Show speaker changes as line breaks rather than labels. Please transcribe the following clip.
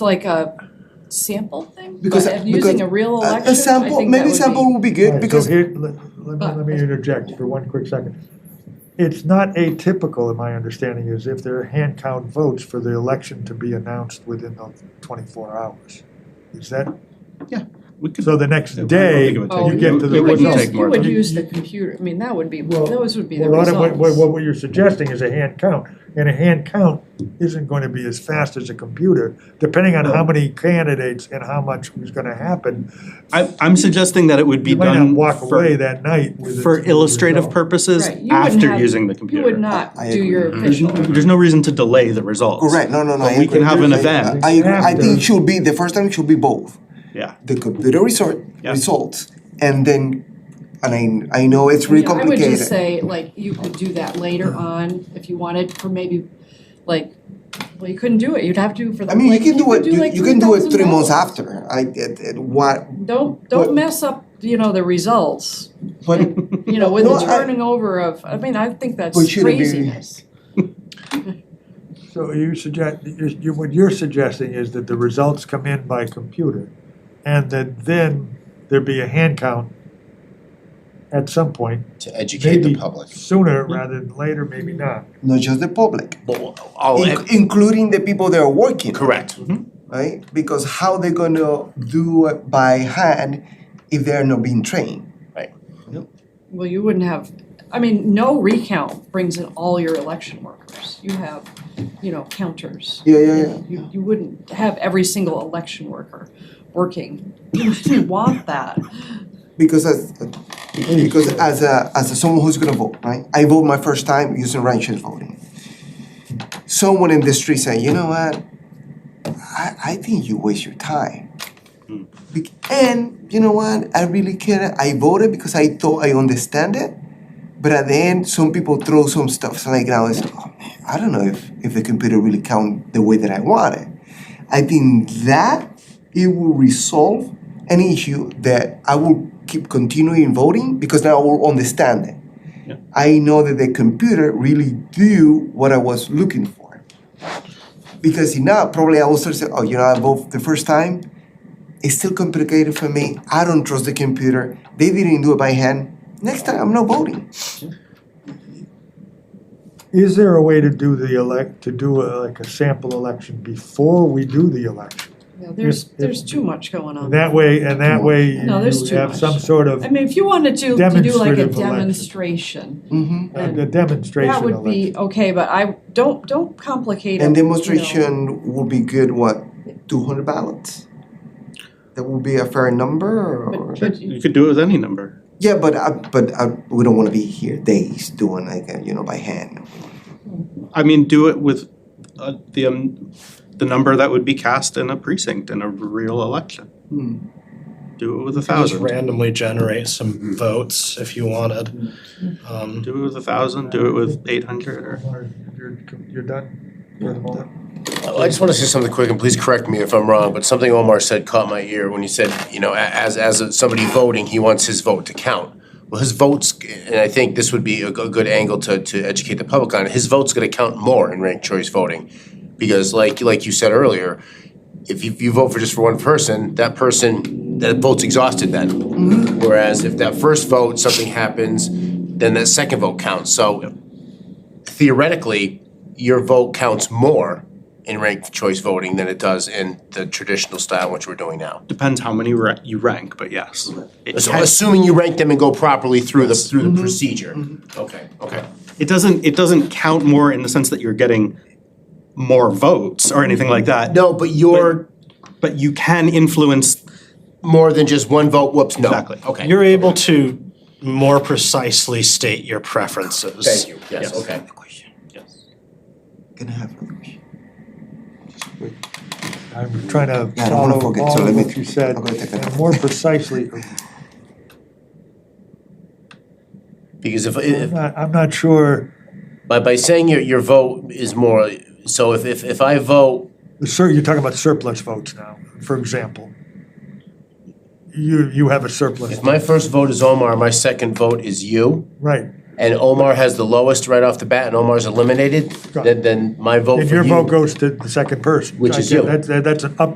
like a sample thing?
Because-
But
because
Using a real election,
Uh, A sample, maybe sample would be
Right,
good
so
because,
here, let, let
Oh.
me, let me interject for one quick second. It's not atypical, in my understanding, is if there are hand count votes for the election to be announced within the twenty-four hours. Is that,
We could,
so the next
I don't
day,
think it would
take-
you get to
It
the
Oh, You would
wouldn't
use,
take more
you would
than-
use the computer, I mean, that would be,
Well,
those would be the
Well,
results.
Autumn, what, what, what you're suggesting is a hand count, and a hand count isn't going to be as fast as a computer, depending on how many candidates and how much is gonna happen.
I, I'm suggesting that it would be
You might
done
not walk away
for,
that night with. a-
for
with a
illustrative
result.
purposes
Right, you wouldn't
after
have-
using the
You
computer. Mm-hmm.
would not
I
do
agree.
your
There's,
official.
no- there's no reason to delay the results.
correct, no, no, no, I
But we
agree.
can have an
I-
event,
I, I
After.
think it should be, the first time it should be both.
yeah.
The computer resort,
Yeah.
results, and then, and I, I know it's really
I mean,
complicated.
I would just say, like, you could do that later on if you wanted for maybe, like, well, you couldn't do it, you'd have to for the,
I mean, you
like,
can
you
do
could
it,
do
you,
like
you can do it three
$3,000.
months after, I, it, it, what,
Don't, don't
But-
mess up, you know, the results,
but,
you know, with
No,
the
I-
turning over of, I mean, I think that's
But should it be-
craziness.
So you suggest, you- you, what you're suggesting is that the results come in by computer, and that then there be a hand count at some point,
to educate the
maybe
public.
sooner
Hmm.
rather than later, maybe not.
not just the public,
Well,
Oh,
all
in- including the people that are working. Mm-hmm.
correct.
Mm-hmm.
right? Because how they gonna do it by hand if they're not being trained?
Well, you wouldn't have, I mean, no recount brings in all your election workers. You have, you know, counters.
Yeah, yeah, yeah.
You, you wouldn't have every single election worker working. You wouldn't want that.
Because as because as a as a someone who's gonna vote, right? I vote my first time using ranked voting. Someone in the street said, you know what? I I think you waste your time. Bec- And you know what? I really care. I voted because I thought I understand it. But at the end, some people throw some stuff. So like now it's, oh man, I don't know if, if the computer really count the way that I want it. I think that it will resolve an issue that I will keep continuing voting because now I will understand it. I know that the computer really do what I was looking for. Because if not, probably I will start saying, oh, you know, I vote the first time. It's still complicated for me. I don't trust the computer. They didn't do it by hand. Next time, I'm not voting.
Is there a way to do the elect, to do a- like a sample election before we do the election?
You know, There's,
If- if-
there's too much going on.
And that way, and that way you
No, there's
you
too
have
much.
some sort of
I mean, if you wanted to, to do like a
Demonstrative election.
demonstration,
Mm-hmm.
a- a uh, demonstration
that
election.
would be okay, but I, don't, don't complicate it.
And
you know.
demonstration would be good, what, two hundred ballots? That would be a fair number or?
But- but you-
You could do it with any number.
Yeah, but I, but I, we don't wanna be here days doing like, uh, you know, by hand.
I mean, do it with uh, the, um, the number that would be cast in a precinct in a real election.
Hmm.
Do it with a
Just
thousand,
randomly generate
Mm-hmm.
some votes if you wanted. Um,
do it with a thousand, do it with eight hundred or.
You're, you're done for the moment?
I just want to say something quick, and please correct me if I'm wrong, but something Omar said caught my ear when he said, you know, a- as, as somebody voting, he wants his vote to count. Well, his votes, and I think this would be a go- good angle to, to educate the public on, his vote's gonna count more in ranked choice voting. Because like, like you said earlier, if you, you vote for just for one person, that person, that vote's exhausted then. Whereas if that first vote, something happens, then that second vote counts. So theoretically, your vote counts more in ranked choice voting than it does in the traditional style which we're doing now.
Depends how many ra- you rank, but yes. It
So
can-
assuming you rank them and go properly through the through the procedure. Okay, okay.
it doesn't, it doesn't count more in the sense that you're getting more votes or anything like that.
No, but you're
But you can influence,
more than just one vote, whoops, no.
Exactly.
Okay.
You're able to more precisely state your preferences.
Thank you, yes,
Yes.
okay.
Can I have another question?
I'm trying to
Yeah, I don't wanna
follow
forget,
all
so
of
let me-
what you said,
I'm gonna take that.
and more precisely,
Because if
I'm
if
not, I'm not sure,
by by saying your your vote is more so if if if I vote
the sur, you're talking about surplus votes now, for example. You, you have a surplus,
if my first vote is Omar, my second vote is you,
right,
and Omar has the lowest right off the bat and Omar's eliminated, then then my vote
and
for
your
you-
vote goes to the second person.
Which
I
is
get-
you.
That's, that's an up